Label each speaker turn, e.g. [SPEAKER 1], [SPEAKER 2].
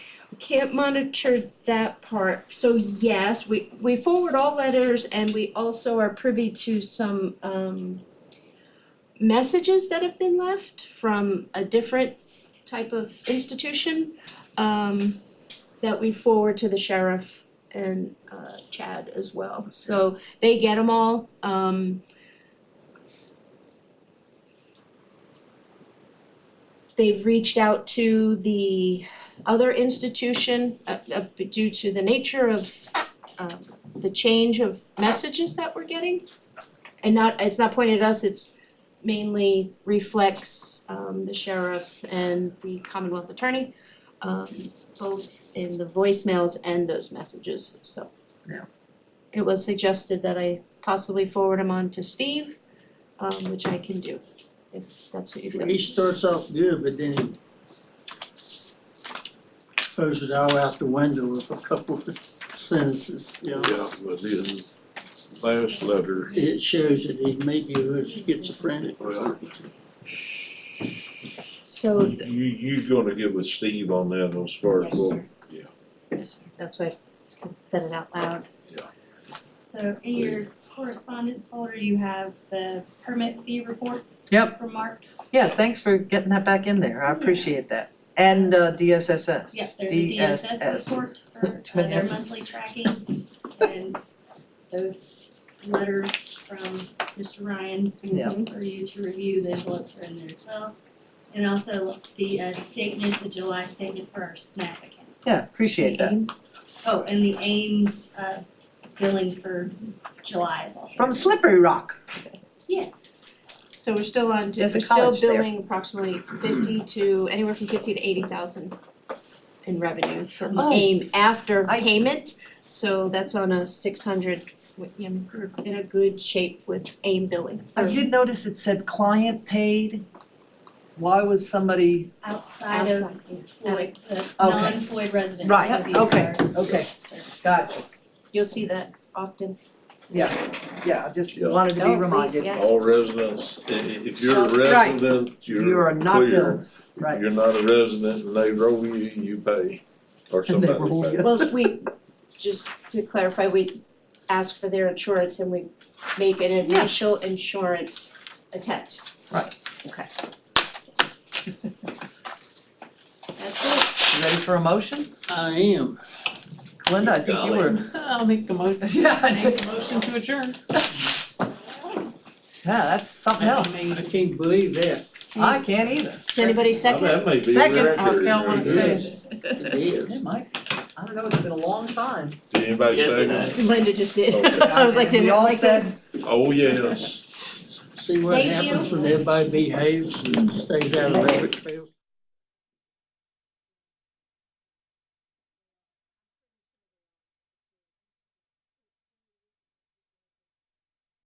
[SPEAKER 1] Can't monitor that part, so yes, we we forward all letters and we also are privy to some um messages that have been left from a different type of institution um that we forward to the sheriff and uh Chad as well, so they get them all, um they've reached out to the other institution uh uh, due to the nature of um the change of messages that we're getting. And not, it's not pointed at us, it's mainly reflects um the sheriffs and the Commonwealth Attorney um both in the voicemails and those messages, so.
[SPEAKER 2] Yeah.
[SPEAKER 1] It was suggested that I possibly forward them on to Steve, um which I can do, if that's what you feel.
[SPEAKER 2] He starts off good, but then he throws it all out the window with a couple of sentences, you know?
[SPEAKER 3] Yeah, but his last letter,
[SPEAKER 2] It shows that he may be a little schizophrenic or something.
[SPEAKER 1] So
[SPEAKER 3] you, you gonna get with Steve on that as far as,
[SPEAKER 4] Yes,
[SPEAKER 3] well,
[SPEAKER 4] sir. That's why I said it out loud.
[SPEAKER 5] So in your correspondence folder, you have the permit fee report.
[SPEAKER 4] Yep.
[SPEAKER 5] From Mark.
[SPEAKER 4] Yeah, thanks for getting that back in there, I appreciate that. And uh, DSSS.
[SPEAKER 5] Yep, there's a DSS report for uh, their
[SPEAKER 4] Yes.
[SPEAKER 5] monthly tracking. And those letters from Mr. Ryan
[SPEAKER 4] Yep.
[SPEAKER 5] for you to review, the envelopes are in there as well. And also the uh, statement, the July statement for our SNAP account.
[SPEAKER 4] Yeah, appreciate that.
[SPEAKER 5] Oh, and the AIM uh, billing for July is also.
[SPEAKER 4] From Slippery Rock.
[SPEAKER 5] Yes.
[SPEAKER 1] So we're still on, we're
[SPEAKER 4] There's a
[SPEAKER 1] still
[SPEAKER 4] college there.
[SPEAKER 1] billing approximately fifty to, anywhere from fifty to eighty thousand in revenue from
[SPEAKER 4] Oh.
[SPEAKER 1] AIM after
[SPEAKER 4] I-
[SPEAKER 1] payment, so that's on a six hundred, you know, we're in a good shape with AIM billing.
[SPEAKER 4] I did notice it said client paid. Why was somebody,
[SPEAKER 5] outside of
[SPEAKER 1] Outside.
[SPEAKER 5] Floyd, the
[SPEAKER 4] Okay.
[SPEAKER 5] non-Floyd residents.
[SPEAKER 4] Right,
[SPEAKER 5] of these
[SPEAKER 4] okay,
[SPEAKER 5] are-
[SPEAKER 4] okay.
[SPEAKER 5] Sir.
[SPEAKER 4] gotcha,
[SPEAKER 1] You'll see that often.
[SPEAKER 4] yeah, I just
[SPEAKER 3] Yeah.
[SPEAKER 4] wanted to
[SPEAKER 1] No,
[SPEAKER 4] be
[SPEAKER 1] please,
[SPEAKER 4] reminded.
[SPEAKER 1] yeah.
[SPEAKER 3] all residents, i- i- if you're a
[SPEAKER 4] Right.
[SPEAKER 3] resident, you're
[SPEAKER 4] You are not
[SPEAKER 3] clear.
[SPEAKER 4] billed,
[SPEAKER 3] If
[SPEAKER 4] right.
[SPEAKER 3] You're not a resident and they roll you, you pay, or
[SPEAKER 4] And they
[SPEAKER 3] somebody
[SPEAKER 4] roll
[SPEAKER 3] pays.
[SPEAKER 4] you.
[SPEAKER 1] Well, we, just to clarify, we ask for their insurance and we make an initial insurance attempt.
[SPEAKER 4] Right.
[SPEAKER 1] Okay. That's it.
[SPEAKER 4] You Ready for a motion?
[SPEAKER 2] I am.
[SPEAKER 4] Glenda, I think you were.
[SPEAKER 6] I'll make the motion,
[SPEAKER 4] Yeah, I know.
[SPEAKER 6] make the motion to adjourn.
[SPEAKER 4] Yeah, that's something else.
[SPEAKER 2] I can't believe that.
[SPEAKER 4] I can't either.
[SPEAKER 1] Does anybody
[SPEAKER 3] Now,
[SPEAKER 1] second?
[SPEAKER 3] That may be a
[SPEAKER 4] Second.
[SPEAKER 3] record.
[SPEAKER 6] I felt
[SPEAKER 3] right
[SPEAKER 6] one
[SPEAKER 3] there.
[SPEAKER 6] stay.
[SPEAKER 2] It is.
[SPEAKER 4] Mike, I don't know, it's been a long time.
[SPEAKER 3] Did anybody
[SPEAKER 7] Yes,
[SPEAKER 3] say
[SPEAKER 7] I-
[SPEAKER 3] that?
[SPEAKER 1] Linda just did.
[SPEAKER 3] Okay.
[SPEAKER 1] I was like, didn't
[SPEAKER 4] We all
[SPEAKER 1] like
[SPEAKER 4] said-
[SPEAKER 1] this.
[SPEAKER 3] Oh, yes.
[SPEAKER 2] See what
[SPEAKER 1] Thank you.
[SPEAKER 2] happens when everybody behaves and stays out of every.